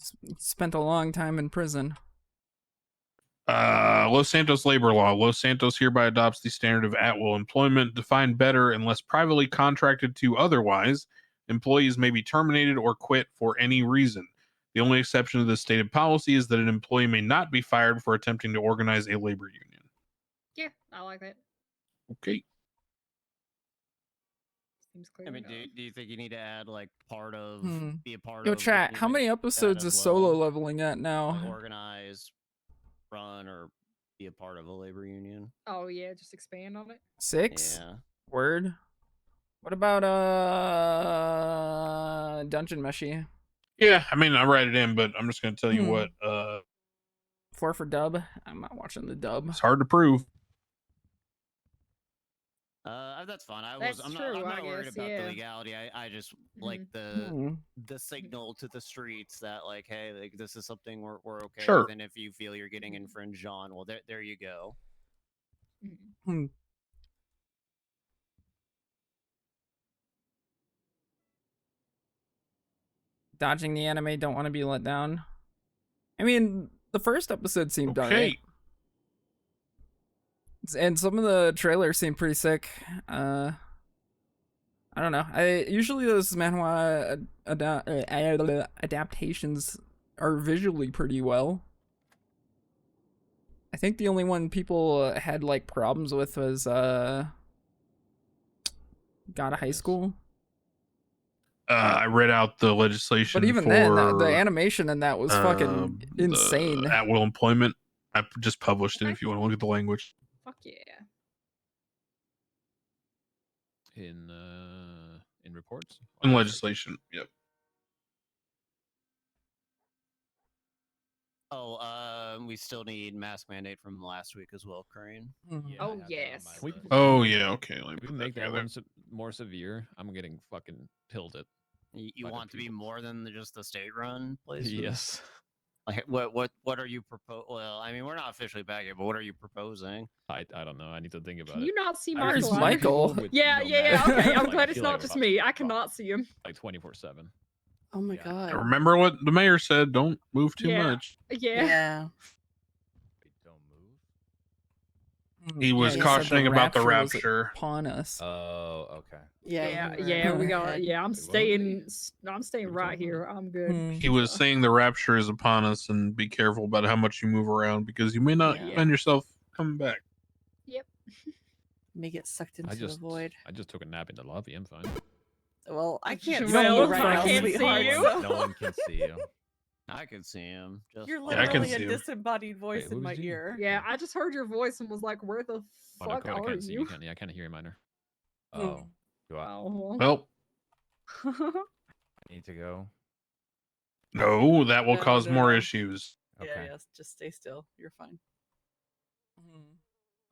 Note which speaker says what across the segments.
Speaker 1: s- spent a long time in prison.
Speaker 2: Uh, Los Santos labor law. Los Santos hereby adopts the standard of at will employment, defined better unless privately contracted to otherwise. Employees may be terminated or quit for any reason. The only exception to this stated policy is that an employee may not be fired for attempting to organize a labor union.
Speaker 3: Yeah, I like that.
Speaker 2: Okay.
Speaker 3: Seems clear.
Speaker 4: I mean, do, do you think you need to add like part of
Speaker 1: Hmm.
Speaker 4: be a part
Speaker 1: Yo,
Speaker 4: of?
Speaker 1: chat, how many episodes
Speaker 4: as
Speaker 1: is solo
Speaker 4: well.
Speaker 1: leveling at
Speaker 4: like,
Speaker 1: now?
Speaker 4: organize, run, or be a part of a labor union?
Speaker 3: oh yeah, just expand on it.
Speaker 1: Six?
Speaker 4: Yeah.
Speaker 1: Word. What about uh Dungeon Meshi?
Speaker 2: Yeah, I mean, I write it in, but I'm just going to tell you
Speaker 1: Hmm.
Speaker 2: what. Uh,
Speaker 1: Four for dub. I'm not watching the dub.
Speaker 2: it's hard to prove.
Speaker 4: Uh, that's fine. I
Speaker 3: That's
Speaker 4: was. I'm
Speaker 3: true,
Speaker 4: not. I'm
Speaker 3: I
Speaker 4: not worried
Speaker 3: guess,
Speaker 4: about
Speaker 3: yeah. Mm-hmm.
Speaker 4: the legality. I, I just like the
Speaker 1: Hmm.
Speaker 4: the signal to the streets that like, hey, like this is something we're we're okay.
Speaker 2: Sure.
Speaker 4: With, and if you feel you're
Speaker 3: Mm-hmm.
Speaker 4: getting infringed on, well, there there you go.
Speaker 3: Mhm.
Speaker 1: Dodging the anime, don't want to be let down. I mean, the first episode seemed alright.
Speaker 2: Okay.
Speaker 1: S- and some of the trailers seem pretty sick. Uh, I don't know. I usually those manhwa ad- ada- uh, ad- adaptations are visually pretty well. I think the only one people uh, had like problems with was uh, God of High
Speaker 4: Yes.
Speaker 1: School.
Speaker 2: Uh, I read out the legislation.
Speaker 1: But even
Speaker 2: for,
Speaker 1: then, the, the animation in that was
Speaker 2: um,
Speaker 1: fucking
Speaker 2: the
Speaker 1: insane.
Speaker 2: At will employment. I p- just published it
Speaker 3: Okay.
Speaker 2: if you want to look at the language.
Speaker 3: Fuck yeah.
Speaker 5: in uh, in reports
Speaker 2: In legislation. Yep.
Speaker 4: Oh, uh, we still need mask mandate from last week as well, Crane.
Speaker 1: Mhm.
Speaker 3: Oh,
Speaker 5: I have that on my
Speaker 3: yes.
Speaker 5: list.
Speaker 2: Oh yeah, okay. Let me
Speaker 5: If we
Speaker 2: put
Speaker 5: make that
Speaker 2: together.
Speaker 5: one se- more severe, I'm getting fucking tilted.
Speaker 4: You, you
Speaker 5: Fucking
Speaker 4: want to be
Speaker 5: people.
Speaker 4: more than the, just the state run places?
Speaker 5: Yes.
Speaker 4: Like what what what are you propose? Well, I mean, we're not officially back yet, but what are you proposing?
Speaker 5: I, I don't know. I need to think about
Speaker 3: Can
Speaker 5: it.
Speaker 3: you not see
Speaker 5: I
Speaker 1: Where's
Speaker 3: Michael? I-
Speaker 5: see
Speaker 1: Michael?
Speaker 5: people with
Speaker 3: Yeah,
Speaker 5: no
Speaker 3: yeah,
Speaker 5: mask
Speaker 3: yeah. Okay,
Speaker 5: on,
Speaker 3: I'm
Speaker 5: like,
Speaker 3: glad it's
Speaker 5: feel
Speaker 3: not
Speaker 5: like
Speaker 3: just
Speaker 5: fuck-
Speaker 3: me. I
Speaker 5: fuck,
Speaker 3: cannot see him.
Speaker 5: Like 24 7.
Speaker 6: Oh my
Speaker 5: Yeah.
Speaker 6: god.
Speaker 2: Remember what the mayor said, don't move too
Speaker 3: Yeah.
Speaker 2: much.
Speaker 3: Yeah.
Speaker 6: Yeah.
Speaker 5: Don't move.
Speaker 1: Mm,
Speaker 2: He
Speaker 1: yeah,
Speaker 2: was
Speaker 1: said
Speaker 2: cautioning about the
Speaker 1: was
Speaker 2: rapture.
Speaker 1: Upon us.
Speaker 5: Oh, okay.
Speaker 6: Yeah.
Speaker 3: Yeah,
Speaker 6: you were
Speaker 3: yeah, we
Speaker 6: going
Speaker 3: got.
Speaker 6: ahead.
Speaker 3: Yeah, I'm
Speaker 5: Wait, what?
Speaker 3: staying. s- no, I'm staying
Speaker 5: What are we
Speaker 3: right
Speaker 5: talking
Speaker 3: here. I'm good.
Speaker 1: Hmm.
Speaker 2: He was saying the rapture is upon us and be careful about how much you move around because you may not
Speaker 6: Yeah.
Speaker 2: find yourself coming back.
Speaker 6: May get sucked into
Speaker 5: I just
Speaker 6: the void.
Speaker 5: I just took a nap in the lobby. I'm fine.
Speaker 6: Well, I
Speaker 3: Just
Speaker 6: can't see
Speaker 1: well,
Speaker 6: you
Speaker 1: if
Speaker 6: right
Speaker 1: I
Speaker 6: now,
Speaker 1: can't see
Speaker 6: sweetheart.
Speaker 3: you.
Speaker 6: so-
Speaker 7: No one can see you.
Speaker 4: I could see him. Just
Speaker 6: You're
Speaker 4: fine.
Speaker 2: Yeah, I can
Speaker 6: literally
Speaker 2: see
Speaker 6: a
Speaker 2: him.
Speaker 6: disembodied voice
Speaker 5: Wait, who
Speaker 6: in my
Speaker 5: was you?
Speaker 6: ear.
Speaker 3: Yeah, I just heard your voice and was like, "Where the
Speaker 5: Oh, no,
Speaker 3: fuck
Speaker 5: Cody, I
Speaker 3: are
Speaker 5: can't see you.
Speaker 3: you?"
Speaker 5: Can't, yeah, I can't hear you, Miner.
Speaker 7: Oh, do I
Speaker 3: Oh.
Speaker 2: Well,
Speaker 3: well.
Speaker 7: need to go?
Speaker 2: no, that will
Speaker 6: No,
Speaker 2: cause
Speaker 6: no,
Speaker 2: more
Speaker 6: no.
Speaker 2: issues.
Speaker 7: Okay.
Speaker 6: Yeah, yes, just stay still. You're fine.
Speaker 1: mm,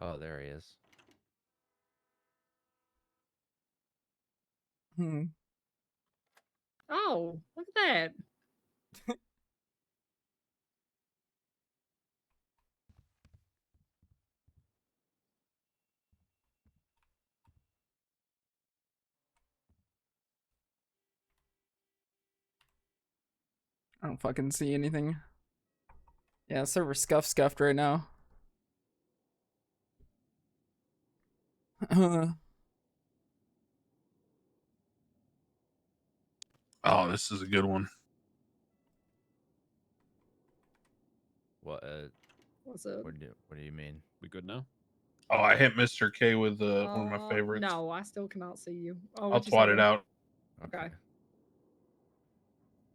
Speaker 7: Oh, there he is.
Speaker 1: Hmm.
Speaker 3: oh, look at that.
Speaker 1: I don't fucking see anything. Yeah, server scuff scuffed right now. Uh,
Speaker 2: Oh, this is a good one.
Speaker 7: What? Uh,
Speaker 3: What's up?
Speaker 7: what do What do you mean?
Speaker 5: We good now?
Speaker 2: Oh, I hit Mr. K with uh, one of
Speaker 3: Uh,
Speaker 2: my favorites.
Speaker 3: No, I still cannot see you. Oh,
Speaker 2: I'll
Speaker 3: what'd you
Speaker 2: twat
Speaker 3: say?
Speaker 2: it out.
Speaker 3: Okay.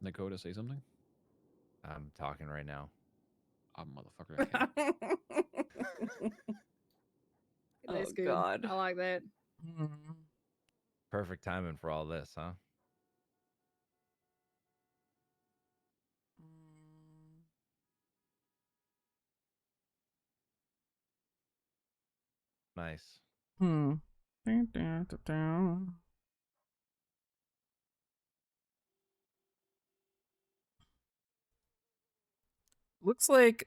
Speaker 5: Dakota, say something?
Speaker 7: I'm talking right now.
Speaker 5: Ah, motherfucker. I can't.
Speaker 6: Oh,
Speaker 3: That's good.
Speaker 6: God.
Speaker 3: I like that.
Speaker 1: hmm.
Speaker 7: Perfect timing for all this, huh?
Speaker 1: mm.
Speaker 7: Nice.
Speaker 1: Hmm. Dun, dun, dun, dun. Looks like